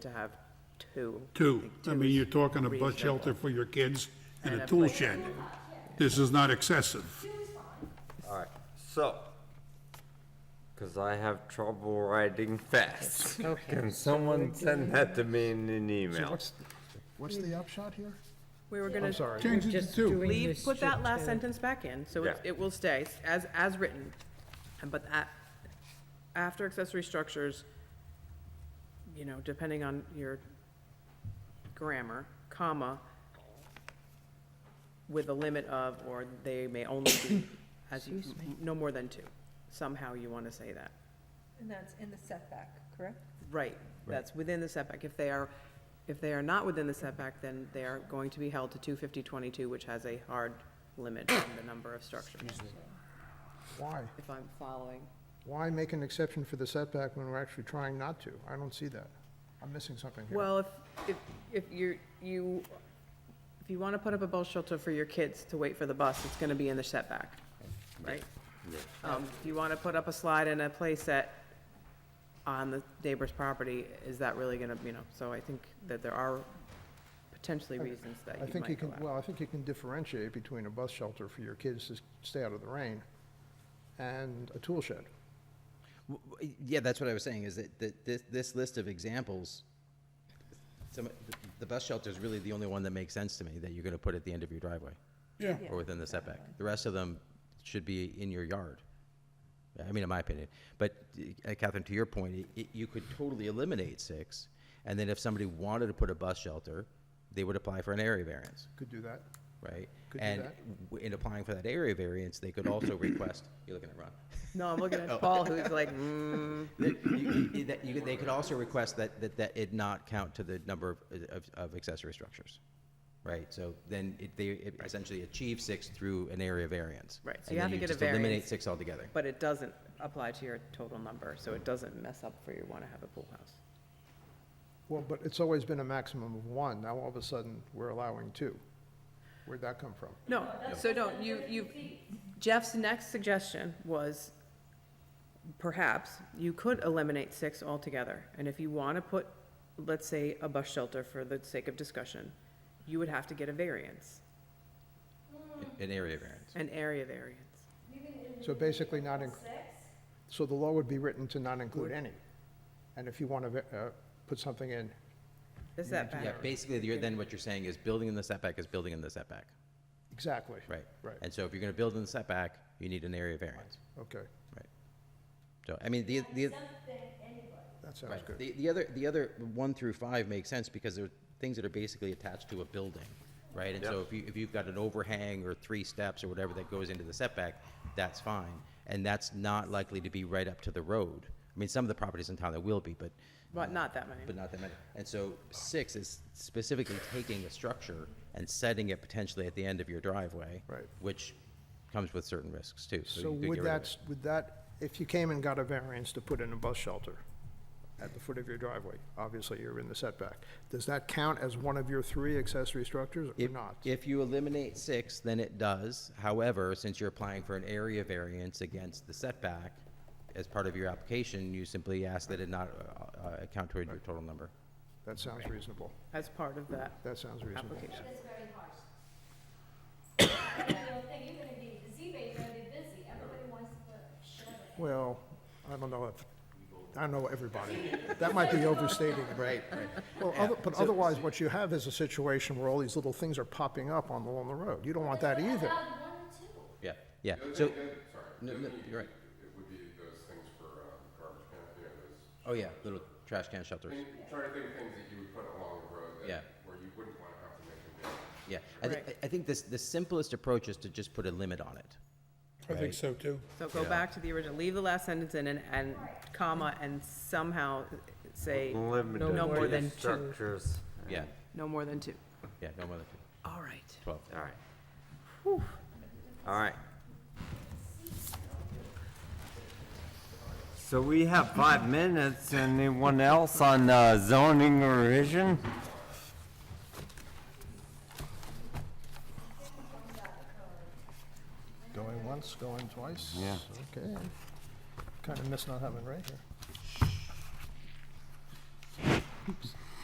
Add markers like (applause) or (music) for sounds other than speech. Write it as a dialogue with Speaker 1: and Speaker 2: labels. Speaker 1: to have two.
Speaker 2: Two, I
Speaker 1: Two
Speaker 2: mean,
Speaker 1: is
Speaker 2: you're talking a bus
Speaker 1: reasonable.
Speaker 2: shelter for your kids and
Speaker 1: And
Speaker 2: a
Speaker 1: a
Speaker 2: tool
Speaker 1: place-
Speaker 2: shed. This is not excessive.
Speaker 3: All right, so, because I have trouble writing fast.
Speaker 1: Okay.
Speaker 3: Can someone send that to me in an email?
Speaker 4: What's, what's the upshot here?
Speaker 1: We were gonna
Speaker 4: sorry.
Speaker 2: Change it to
Speaker 5: Just
Speaker 2: two.
Speaker 5: doing
Speaker 1: leave,
Speaker 5: this
Speaker 1: put that
Speaker 5: to-
Speaker 1: last sentence back in, so it,
Speaker 3: Yeah.
Speaker 1: it will stay as, as written. And but that, after accessory structures, you know, depending on your grammar, comma, with a limit of, or they may only be, as, you- no more than two. Somehow you wanna say that.
Speaker 6: And that's in the setback, correct?
Speaker 1: Right, that's within the setback. If they are, if they are not within the setback, then they are going to be held to two fifty twenty-two, which has a hard limit on the number of structures,
Speaker 4: Why?
Speaker 1: if I'm following.
Speaker 4: Why make an exception for the setback when we're actually trying not to? I don't see that. I'm missing something here.
Speaker 1: Well, if, if, if you're, you, if you wanna put up a bus shelter for your kids to wait for the bus, it's gonna be in the setback, right? Um, if you wanna put up a slide and a playset on the neighbor's property, is that really gonna, you know, so I think that there are potentially reasons that
Speaker 4: I
Speaker 1: you
Speaker 4: think you
Speaker 1: might go
Speaker 4: can,
Speaker 1: out.
Speaker 4: well, I think you can differentiate between a bus shelter for your kids to s- stay out of the rain and a tool shed.
Speaker 7: W- w- Yeah, that's what I was saying, is that, that this, this list of examples, some, the- the bus shelter is really the only one that makes sense to me, that you're gonna put at the end of your driveway,
Speaker 2: Yeah,
Speaker 7: or within the setback. The rest of them should be in your yard. I mean, in my opinion. But uh, Catherine, to your point, i- i you could totally eliminate six, and then if somebody wanted to put a bus shelter, they would apply for an area variance
Speaker 4: Could do that.
Speaker 7: right?
Speaker 4: Could do
Speaker 7: And
Speaker 4: that.
Speaker 7: w- in applying for that area variance, they could also request, you're looking at Ron.
Speaker 1: No, I'm looking
Speaker 7: (laughs)
Speaker 1: at Paul, who's like, mm,
Speaker 7: That you- you- that you could- They could also request that, that, that it not count to the number of- of, of accessory structures, right? So then it, they it essentially achieve six through an area variance.
Speaker 1: Right, so
Speaker 7: And
Speaker 1: you
Speaker 7: then
Speaker 1: have to get a
Speaker 7: just Eliminate
Speaker 1: variance.
Speaker 7: six altogether.
Speaker 1: but it doesn't apply to your total number, so it doesn't mess up for you wanna have a pool house.
Speaker 4: Well, but it's always been a maximum of one. Now all of a sudden, we're allowing two. Where'd that come from?
Speaker 1: No, so don't, you, you, Jeff's next suggestion was, perhaps, you could eliminate six altogether. And if you want to put, let's say, a bus shelter for the sake of discussion, you would have to get a variance,
Speaker 7: An area variance.
Speaker 1: an area variance.
Speaker 4: So basically not in, so the law would be written to not include any. And if you want to put something in,
Speaker 1: Is that
Speaker 7: Yeah,
Speaker 1: bad?
Speaker 7: basically, you're, then what you're saying is building in the setback is building in the setback,
Speaker 4: exactly.
Speaker 7: right?
Speaker 4: Right.
Speaker 7: And so if you're gonna build in the setback, you need an area variance,
Speaker 4: Okay,
Speaker 7: right? So, I mean, the, the.
Speaker 4: that sounds
Speaker 7: Right.
Speaker 4: good.
Speaker 7: The, the other, the other one through five makes sense because they're things that are basically attached to a building, right? And so if you, if you've got an overhang or three steps or whatever that goes into the setback, that's fine. And that's not likely to be right up to the road. I mean, some of the properties in town that will be, but,
Speaker 1: But not that many.
Speaker 7: but not that many. And so six is specifically taking a structure and setting it potentially at the end of your driveway.
Speaker 4: Right.
Speaker 7: Which comes with certain risks too.
Speaker 4: So
Speaker 7: you could
Speaker 4: would
Speaker 7: get rid of
Speaker 4: that,
Speaker 7: it.
Speaker 4: would that, if you came and got a variance to put in a bus shelter at the foot of your driveway, obviously you're in the setback, does that count as one of your three accessory structures or
Speaker 7: If-
Speaker 4: not?
Speaker 7: If you eliminate six, then it does. However, since you're applying for an area variance against the setback, as part of your application, you simply ask that it not uh, uh, account toward your total number.
Speaker 4: That sounds reasonable.
Speaker 1: As part of that
Speaker 4: That sounds reasonable.
Speaker 1: application.
Speaker 8: That's very harsh. You don't think you're gonna be, the Z-Bay, you're gonna be busy, everybody wants to put shelter.
Speaker 4: Well, I don't know if, I know everybody. That might be overstating it. Right, Well, other- but otherwise, what you have is a situation where all these little things are popping up on, along the road. You don't want that either.
Speaker 8: Allowed one or two.
Speaker 7: Yeah, yeah. So,
Speaker 9: Sorry.
Speaker 7: no, no, you're right.
Speaker 9: It would be those things for um, garbage cans, you know, those,
Speaker 7: Oh, yeah, little trash can shelters.
Speaker 9: think- try to think of things that you would put along the road
Speaker 7: Yeah.
Speaker 9: that, where you wouldn't want to have to make a variance.
Speaker 7: Yeah. I, thi-
Speaker 1: Right.
Speaker 7: I think this, the simplest approach is to just put a limit on it.
Speaker 2: I think so too.
Speaker 1: So go back to the original, leave the last sentence in and, and comma, and somehow say,
Speaker 3: Limited
Speaker 1: no more
Speaker 3: to
Speaker 1: than two,
Speaker 3: structures.
Speaker 7: Yeah,
Speaker 1: no more than two.
Speaker 7: yeah, no more than two.
Speaker 1: All right.
Speaker 7: twelve.
Speaker 3: All right. All right. So we have five minutes. Anyone else on uh, zoning revision?
Speaker 4: Going once, going twice? Yeah. Okay. Kind of miss not having Ray here.